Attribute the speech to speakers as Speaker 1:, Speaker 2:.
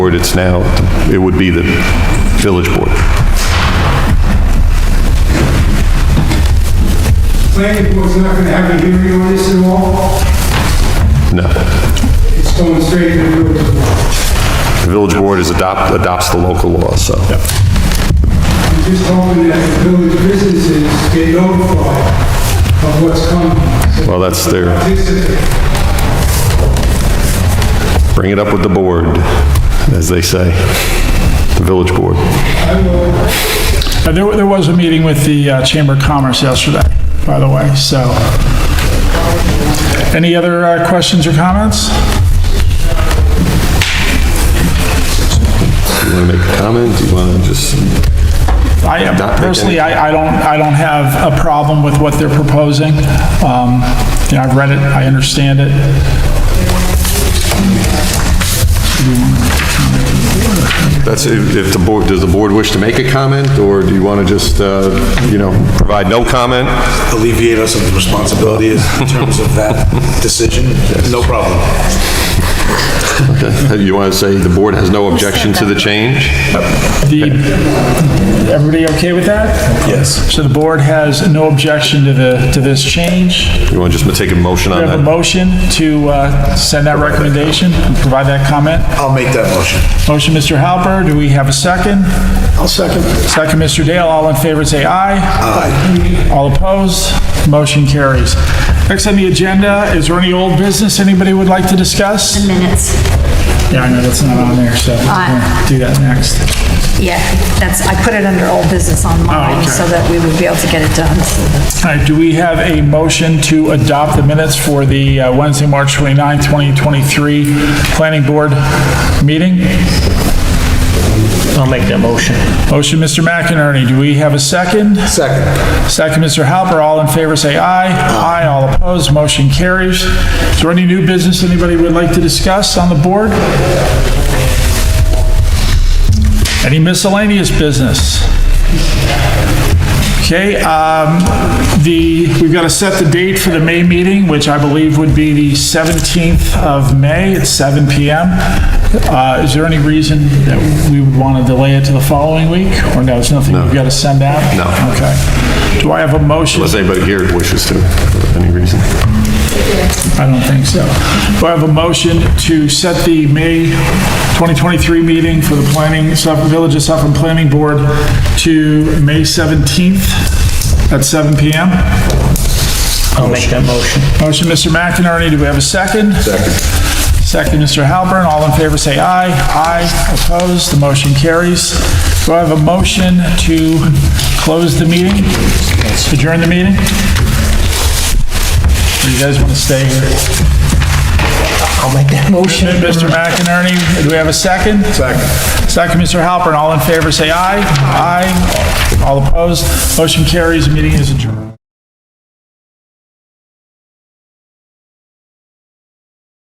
Speaker 1: board, it's now, it would be the village board.
Speaker 2: Planning board's not gonna have a hearing on this at all.
Speaker 1: No.
Speaker 2: It's going straight to the village board.
Speaker 1: The village board is adopt, adopts the local law, so.
Speaker 2: I'm just hoping that the village businesses get notified of what's coming. So
Speaker 1: Well, that's their,
Speaker 2: This is,
Speaker 1: bring it up with the board, as they say, the village board.
Speaker 2: I will,
Speaker 3: Uh, There, there was a meeting with the uh, Chamber of Commerce yesterday, by the way, so. Any other uh, questions or comments?
Speaker 1: You want to make a comment? Do you want to just?
Speaker 3: I
Speaker 1: Not make any-
Speaker 3: personally, I, I don't, I don't have a problem with what they're proposing. Um, You know, I've read it, I understand it.
Speaker 1: That's if if the board, does the board wish to make a comment, or do you want to just, uh, you know, provide no comment?
Speaker 4: alleviate us of the responsibility in terms of that decision, no problem.
Speaker 1: Okay. You want to say the board has no objection to the change?
Speaker 3: The, everybody okay with that?
Speaker 4: Yes.
Speaker 3: So the board has no objection to the, to this change.
Speaker 1: You want to just take a motion
Speaker 3: We
Speaker 1: on
Speaker 3: have
Speaker 1: that?
Speaker 3: a motion to uh, send that recommendation, and provide that comment.
Speaker 4: I'll make that motion.
Speaker 3: Motion, Mr. Halper, do we have a second?
Speaker 4: I'll second.
Speaker 3: Second, Mr. Dale, all in favor, say aye. Aye. All opposed, motion carries. Next on the agenda, is there any old business anybody would like to discuss?
Speaker 5: minutes.
Speaker 3: Yeah, I know, that's not on there, so we'll do that next.
Speaker 5: Yeah, that's, I put it under old business on
Speaker 3: Oh,
Speaker 5: mine
Speaker 3: okay.
Speaker 5: so that we would be able to get it done. So that's-
Speaker 3: All right, do we have a motion to adopt the minutes for the uh, Wednesday, March 29, 2023 Planning Board meeting?
Speaker 6: I'll make that motion.
Speaker 3: Motion, Mr. McInerney, do we have a second?
Speaker 4: Second.
Speaker 3: Second, Mr. Halper, all in favor, say aye. Aye, all opposed, motion carries. Is there any new business anybody would like to discuss on the board? Any miscellaneous business? Okay, um, the, we've got to set the date for the May meeting, which I believe would be the 17th of May at 7 PM. Uh, Is there any reason that we would want to delay it to the following week? Or no, it's nothing we've got to send out?
Speaker 1: No.
Speaker 3: Okay. Do I have a motion?
Speaker 1: Unless anybody here wishes to, for any reason.
Speaker 3: I don't think so. Do I have a motion to set the May 2023 meeting for the planning, Suff- Village of Suffolk Planning Board to May 17th at 7 PM?
Speaker 6: I'll make that motion.
Speaker 3: Motion, Mr. McInerney, do we have a second? Second. Second, Mr. Halpern, all in favor say aye. Aye, opposed, the motion carries. Do I have a motion to close the meeting? Adjourn the meeting? Or you guys want to stay here?
Speaker 6: I'll make that motion.
Speaker 3: Mr. McInerney, do we have a second? Second. Second, Mr. Halpern, all in favor say aye. Aye, all opposed, motion carries, meeting is adjourned.